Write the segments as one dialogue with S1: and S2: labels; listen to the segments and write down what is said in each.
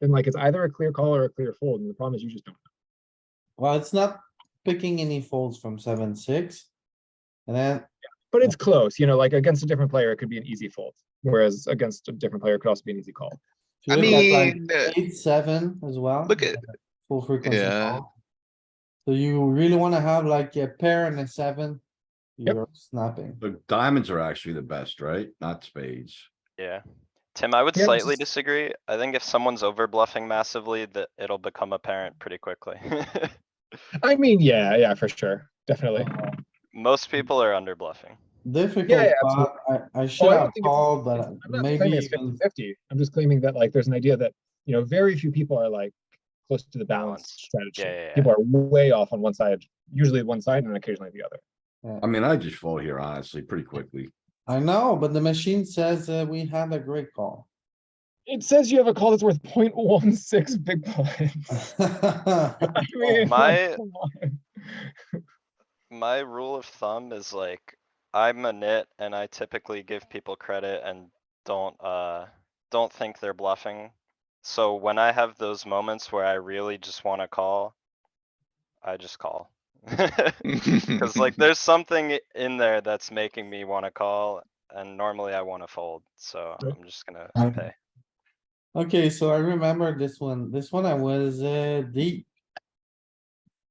S1: And like, it's either a clear call or a clear fold, and the problem is you just don't. know.
S2: Well, it's not picking any folds from seven, six. And then,
S1: But it's close, you know, like against a different player, it could be an easy fold, whereas against a different player, it could also be an easy call.
S2: if you
S3: I
S2: look at like
S3: mean, uh,
S2: eight, seven as well.
S3: look at,
S2: Full frequency.
S3: Yeah.
S2: call. So you really wanna have like a pair and a seven?
S1: Yep.
S2: You're snapping.
S4: The diamonds are actually the best, right? Not spades.
S5: Yeah. Tim, I would
S1: Yeah,
S5: slightly
S1: just-
S5: disagree. I think if someone's over bluffing massively, that it'll become apparent pretty quickly.
S1: I mean, yeah, yeah, for sure, definitely.
S2: Uh,
S5: Most people are under bluffing.
S2: Difficult,
S1: absolutely.
S2: spot. I, I should have
S1: think it's-
S2: called,
S1: It's-
S2: but
S5: Uh,
S1: I'm not
S2: maybe
S1: claiming it's
S2: even-
S1: 50/50. I'm just claiming that like, there's an idea that, you know, very few people are like close to the balance
S5: Balanced.
S1: strategy.
S5: Yeah, yeah, yeah.
S1: People are way off on one side, usually one side and occasionally the other.
S4: I mean, I just fall here honestly pretty quickly.
S2: I know, but the machine says uh, we had a great call.
S1: It says you have a call that's worth 0.16 big blinds.
S2: But
S1: I mean, like,
S5: Oh, My-
S1: come on.
S5: My rule of thumb is like, I'm a nit and I typically give people credit and don't, uh, don't think they're bluffing. So when I have those moments where I really just wanna call, I just call. Cause like there's something i- in there that's making me wanna call and normally I wanna fold, so
S1: Yep.
S5: I'm just gonna
S2: Um,
S5: pay.
S2: Okay, so I remember this one. This one I was uh deep.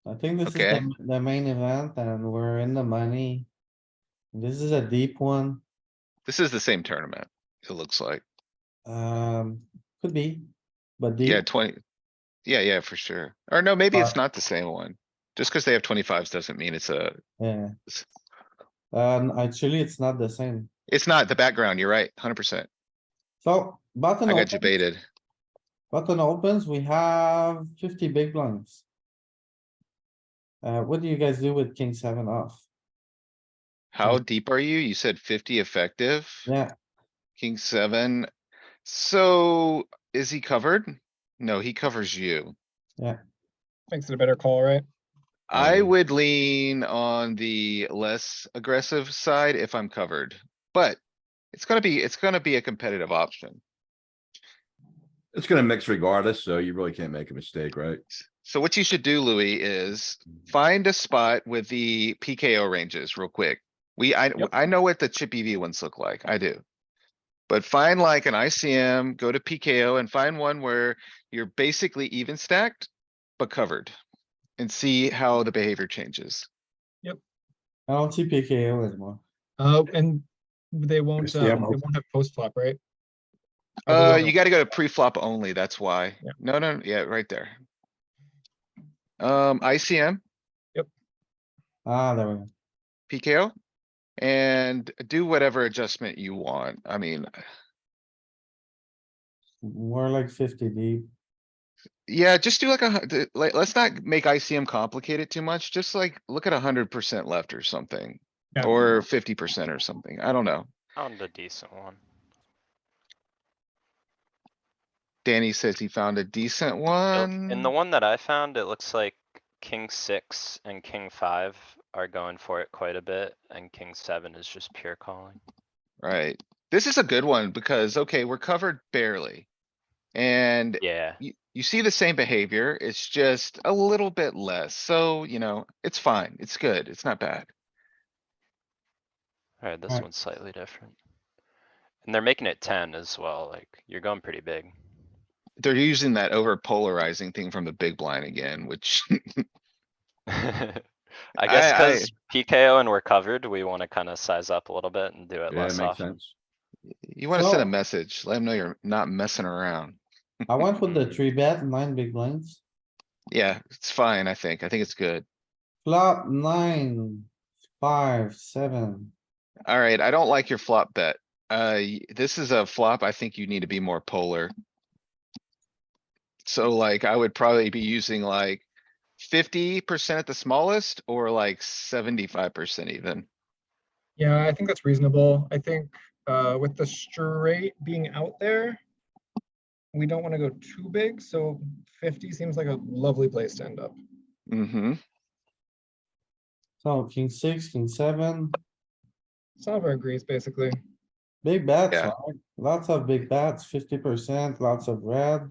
S2: I think this is
S3: Okay.
S2: the, the main event and we're in the money. This is a deep one,
S3: this is the same tournament, it looks like.
S2: um, could be, but
S3: Yeah,
S2: deep,
S3: twenty. Yeah, yeah, for sure. Or no, maybe it's
S2: Five.
S3: not the same one. Just because they have twenty-fives doesn't mean it's a,
S2: yeah. Um, actually, it's not the same.
S3: it's not the background. You're right, hundred percent.
S2: So button.
S3: I got you
S2: opens-
S3: baited.
S2: Button opens, we have fifty big blinds. Uh, what do you guys do with king seven off?
S3: How deep are you? You said fifty effective,
S2: Yeah,
S3: king seven. So is he covered? No, he covers you.
S1: Makes it a better call, right?
S3: I
S4: Um,
S3: would lean on the less aggressive side if I'm covered, but it's gonna be, it's gonna be a competitive option.
S4: It's gonna mix regardless, so you really can't make a mistake, right?
S3: So what you should do, Louis, is
S1: Mm-hmm.
S3: find a spot with the PKO ranges real quick. We, I,
S1: Yep.
S3: I know what the chip EV ones look like. I do. But find like an ICM, go to PKO and find one where you're basically even stacked, but covered. And see how the behavior changes.
S2: I don't see PKO anymore.
S1: Uh, and they won't,
S6: Yes,
S1: um,
S6: yeah,
S1: they
S6: I'm open.
S1: won't have post flop, right?
S3: Uh,
S1: Otherwise-
S3: you gotta go to pre-flop only, that's why.
S1: Yeah.
S3: No, no, yeah, right there. Um, ICM,
S2: Ah, there we go.
S3: PKO. And do whatever adjustment you want. I mean,
S2: We're like fifty deep.
S3: Yeah, just do like a, hun- the- like, let's not make ICM complicated too much. Just like, look at a hundred percent left or something,
S1: Yeah.
S3: or fifty percent or something. I don't know.
S5: Found a decent one.
S3: Danny says he found a decent
S5: Oh,
S3: one.
S5: In the one that I found, it looks like king six and king five are going for it quite a bit and king seven is just pure calling.
S3: Right. This is a good one because, okay, we're covered barely. And
S5: Yeah,
S3: you, you see the same behavior. It's just a little bit less. So, you know, it's fine. It's good. It's not bad.
S5: alright, this
S2: Alright.
S5: one's slightly different. And they're making it ten as well, like you're going pretty big.
S3: They're using that over polarizing thing from the big blind again, which
S5: I guess
S3: I- I-
S5: cuz PKO and we're covered, we wanna kinda size up a little bit and do it
S4: Yeah,
S5: less
S4: it makes
S5: often.
S4: sense.
S3: You wanna send
S2: So-
S3: a message, let them know you're not messing around.
S2: I went with the three bet, nine big blinds.
S3: Yeah, it's fine, I think. I think it's good.
S2: Flop nine, five, seven.
S3: Alright, I don't like your flop bet. Uh, y- this is a flop. I think you need to be more polar. So like, I would probably be using like fifty percent at the smallest or like seventy-five percent even.
S1: Yeah, I think that's reasonable. I think uh, with the straight being out there, we don't want to go too big, so 50 seems like a lovely place to end up.
S3: Mm-hmm.
S2: So king six, king seven,
S1: Solver agrees, basically.
S2: big bets,
S3: Yeah.
S2: right? Lots of big bets, fifty percent, lots of red.